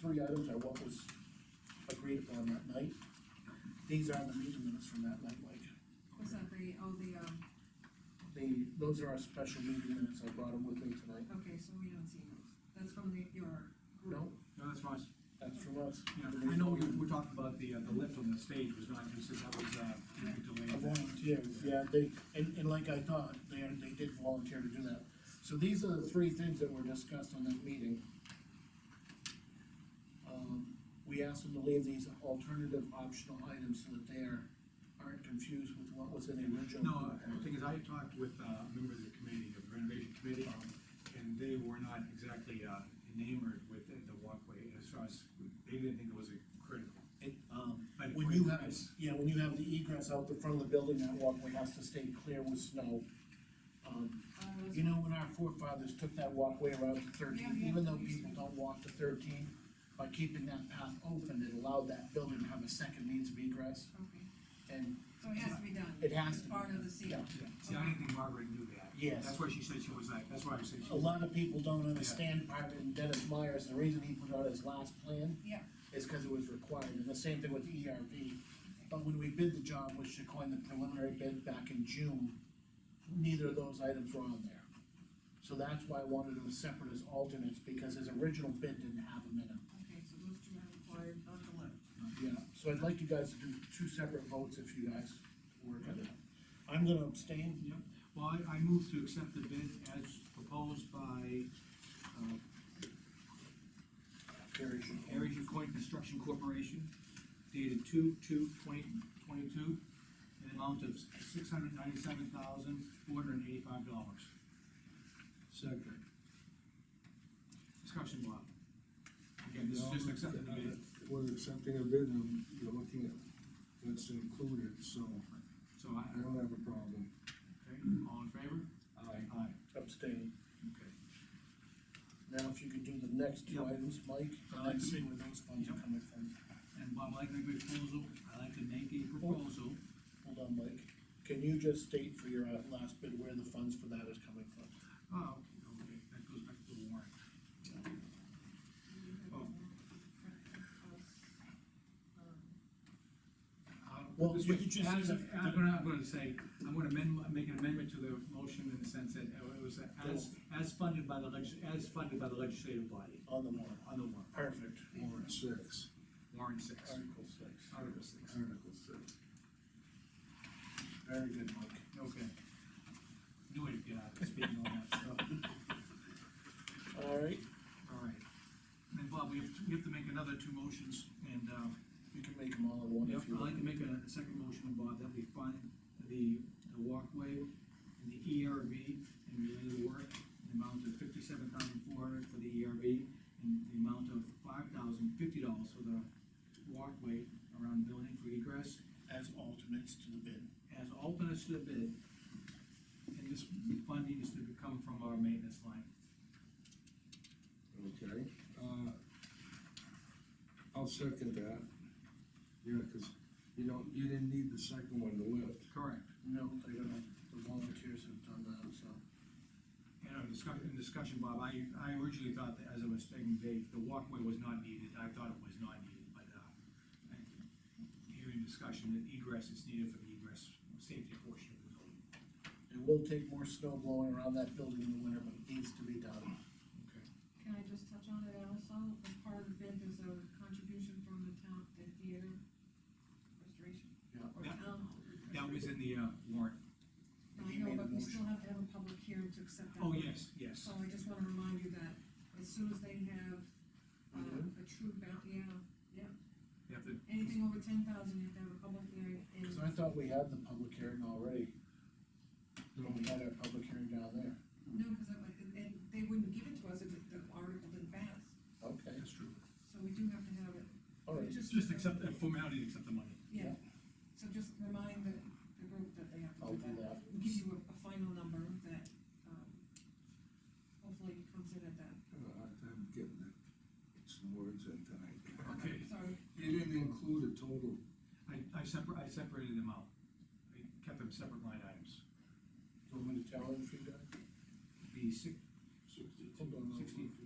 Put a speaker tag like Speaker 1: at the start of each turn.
Speaker 1: three items are what was agreed upon that night. These are the meeting minutes from that night, Mike.
Speaker 2: Was that the, oh, the, um,
Speaker 1: The, those are our special meeting minutes, I brought them with me tonight.
Speaker 2: okay, so we don't see those, that's from the, your group.
Speaker 1: No,
Speaker 3: No, that's right,
Speaker 1: that's from us.
Speaker 3: yeah, I know we, we talked about the, uh, the lift on the stage was not considered, that was, uh,
Speaker 1: A
Speaker 3: delayed.
Speaker 1: volunteer, yeah, they, and, and like I thought, they, are- they did volunteer to do that. So these are the three things that were discussed on that meeting. Um, we asked them to leave these alternative optional items so that they are, aren't confused with what was in the original.
Speaker 3: No, uh, the thing is, I talked with, uh, members of the committee, of the renovation committee, um, and they were not exactly, uh, enamored with the the walkway, as far as, they didn't think it was a critical.
Speaker 1: It, um,
Speaker 3: But if
Speaker 1: when
Speaker 3: we-
Speaker 1: you have, yeah, when you have the egress out the front of the building, that walkway has to stay clear with snow. Um,
Speaker 2: Uh, it was-
Speaker 1: You know, when our forefathers took that walkway around to
Speaker 2: Yeah,
Speaker 1: thirteen,
Speaker 2: yeah.
Speaker 1: even though people don't walk to thirteen, by keeping that path open, it allowed that building to have a second means of egress,
Speaker 2: Okay,
Speaker 1: and,
Speaker 2: so it has to be done.
Speaker 1: It has
Speaker 2: It's
Speaker 1: to be
Speaker 2: Part of the
Speaker 1: yeah.
Speaker 2: scene.
Speaker 3: See, I didn't think Margaret knew that.
Speaker 1: Yes.
Speaker 3: That's why she said she was like, that's why I said she.
Speaker 1: A lot of people don't understand Marvin Dennis Myers, the reason he put out his last plan
Speaker 2: Yeah,
Speaker 1: is because it was required, and the same thing with ERV. But when we bid the job, which they coined the preliminary bid back in June, neither of those items were on there. So that's why I wanted them separate as alternates, because his original bid didn't have them in it.
Speaker 2: okay, so those two are required, not the lift.
Speaker 1: Yeah, so I'd like you guys to do two separate votes if you guys work on it. I'm gonna abstain.
Speaker 3: Yep, well, I, I move to accept the bid as proposed by, uh,
Speaker 1: Carrie should.
Speaker 3: Aries Coin Construction Corporation dated two, two, twenty, twenty-two, an amount of six hundred ninety-seven thousand, four hundred and eighty-five dollars.
Speaker 4: Second.
Speaker 3: Discussion, Bob. Again, this is just accepting the bid,
Speaker 4: We're accepting a bid, and you're um, looking at what's included, so
Speaker 3: so I,
Speaker 4: I don't have a problem.
Speaker 3: okay, all in favor?
Speaker 4: Aye.
Speaker 3: Aye.
Speaker 1: Abstain.
Speaker 3: Okay.
Speaker 1: Now, if you could do the next two
Speaker 3: Yep.
Speaker 1: items, Mike,
Speaker 3: I'd
Speaker 1: and
Speaker 3: like
Speaker 1: then
Speaker 3: to-
Speaker 1: Uh, see where those funds are
Speaker 3: Yep.
Speaker 1: coming from.
Speaker 3: And Bob, I like the proposal, I like to make a proposal.
Speaker 1: Hold on, Mike. Can you just state for your uh, last bid where the funds for that is coming from?
Speaker 3: Oh, okay, okay, that goes back to the warrant. Oh. Uh,
Speaker 1: Well,
Speaker 3: this
Speaker 1: you
Speaker 3: way,
Speaker 1: could just
Speaker 3: as-
Speaker 1: say that-
Speaker 3: I'm gonna, I'm gonna say, I'm gonna amend, my- make an amendment to the motion in the sense that it was as, as funded by the legis, as funded by the legislative body
Speaker 1: On the warrant.
Speaker 3: on the warrant,
Speaker 1: Perfect.
Speaker 4: Warrant six,
Speaker 3: warrant six,
Speaker 1: Article six.
Speaker 3: article six.
Speaker 4: Article six.
Speaker 1: Very good, Mike.
Speaker 3: Okay. Knew it, yeah, speaking on that stuff.
Speaker 1: All right,
Speaker 3: All right. And Bob, we have, to- we have to make another two motions and, um,
Speaker 1: you can make them all in one
Speaker 3: Yep,
Speaker 1: if you
Speaker 3: I'd like
Speaker 1: want.
Speaker 3: to make a a second motion, Bob, that we find the, the walkway and the ERV and related work, an amount of fifty-seven thousand four hundred for the ERV, and the amount of five thousand fifty dollars for the walkway around the building for egress,
Speaker 1: As alternates to the bid.
Speaker 3: as alternates to the bid. And this funding is to come from our maintenance line.
Speaker 4: Okay, uh, I'll second that. Yeah, cause you don't, you didn't need the second one to lift.
Speaker 3: Correct.
Speaker 1: No, they're gonna, the volunteers have done that, so.
Speaker 3: And our discuss, in discussion, Bob, I, I originally thought that, as I was stating, Dave, the walkway was not needed, I thought it was not needed, but, uh, I- hearing discussion that egress is needed for the egress, safety portion of the building.
Speaker 1: It will take more snow blowing around that building in the winter, but it needs to be done.
Speaker 3: Okay.
Speaker 2: Can I just touch on it also, as part of the bid, there's a contribution from the town, the theater restoration, or
Speaker 3: Yeah.
Speaker 2: town. hall
Speaker 3: That was in the, uh, warrant.
Speaker 2: I know, but we still have to have a public hearing to accept that.
Speaker 3: Oh, yes, yes.
Speaker 2: So I just wanna remind you that as soon as they have, uh,
Speaker 1: Mhm.
Speaker 2: a true bound, yeah,
Speaker 3: You have to,
Speaker 2: anything over ten thousand, you have to have a public hearing, and
Speaker 1: Cause I thought we had the public hearing already,
Speaker 4: No,
Speaker 1: when we had our public hearing down there.
Speaker 2: No, because I, and, and they wouldn't give it to us if it- the article didn't pass,
Speaker 1: Okay.
Speaker 3: that's true.
Speaker 2: so we do have to have it.
Speaker 1: All right,
Speaker 3: Just, just accept, the formality, to accept the money.
Speaker 2: Yeah, so just remind the, the group that they have to
Speaker 1: I'll
Speaker 2: do
Speaker 1: do
Speaker 2: that.
Speaker 1: that.
Speaker 2: We'll Give you a, a final number that, um, hopefully comes in at that.
Speaker 4: I have a hard time Uh, getting that, some words in tonight.
Speaker 3: Okay.
Speaker 2: Sorry,
Speaker 4: You didn't include a total,
Speaker 3: I, I separ, I separated them out. I kept them separate line items.
Speaker 1: Do you want me to tell him if you got?
Speaker 3: The six,
Speaker 1: Hold on, I'll-
Speaker 3: sixty,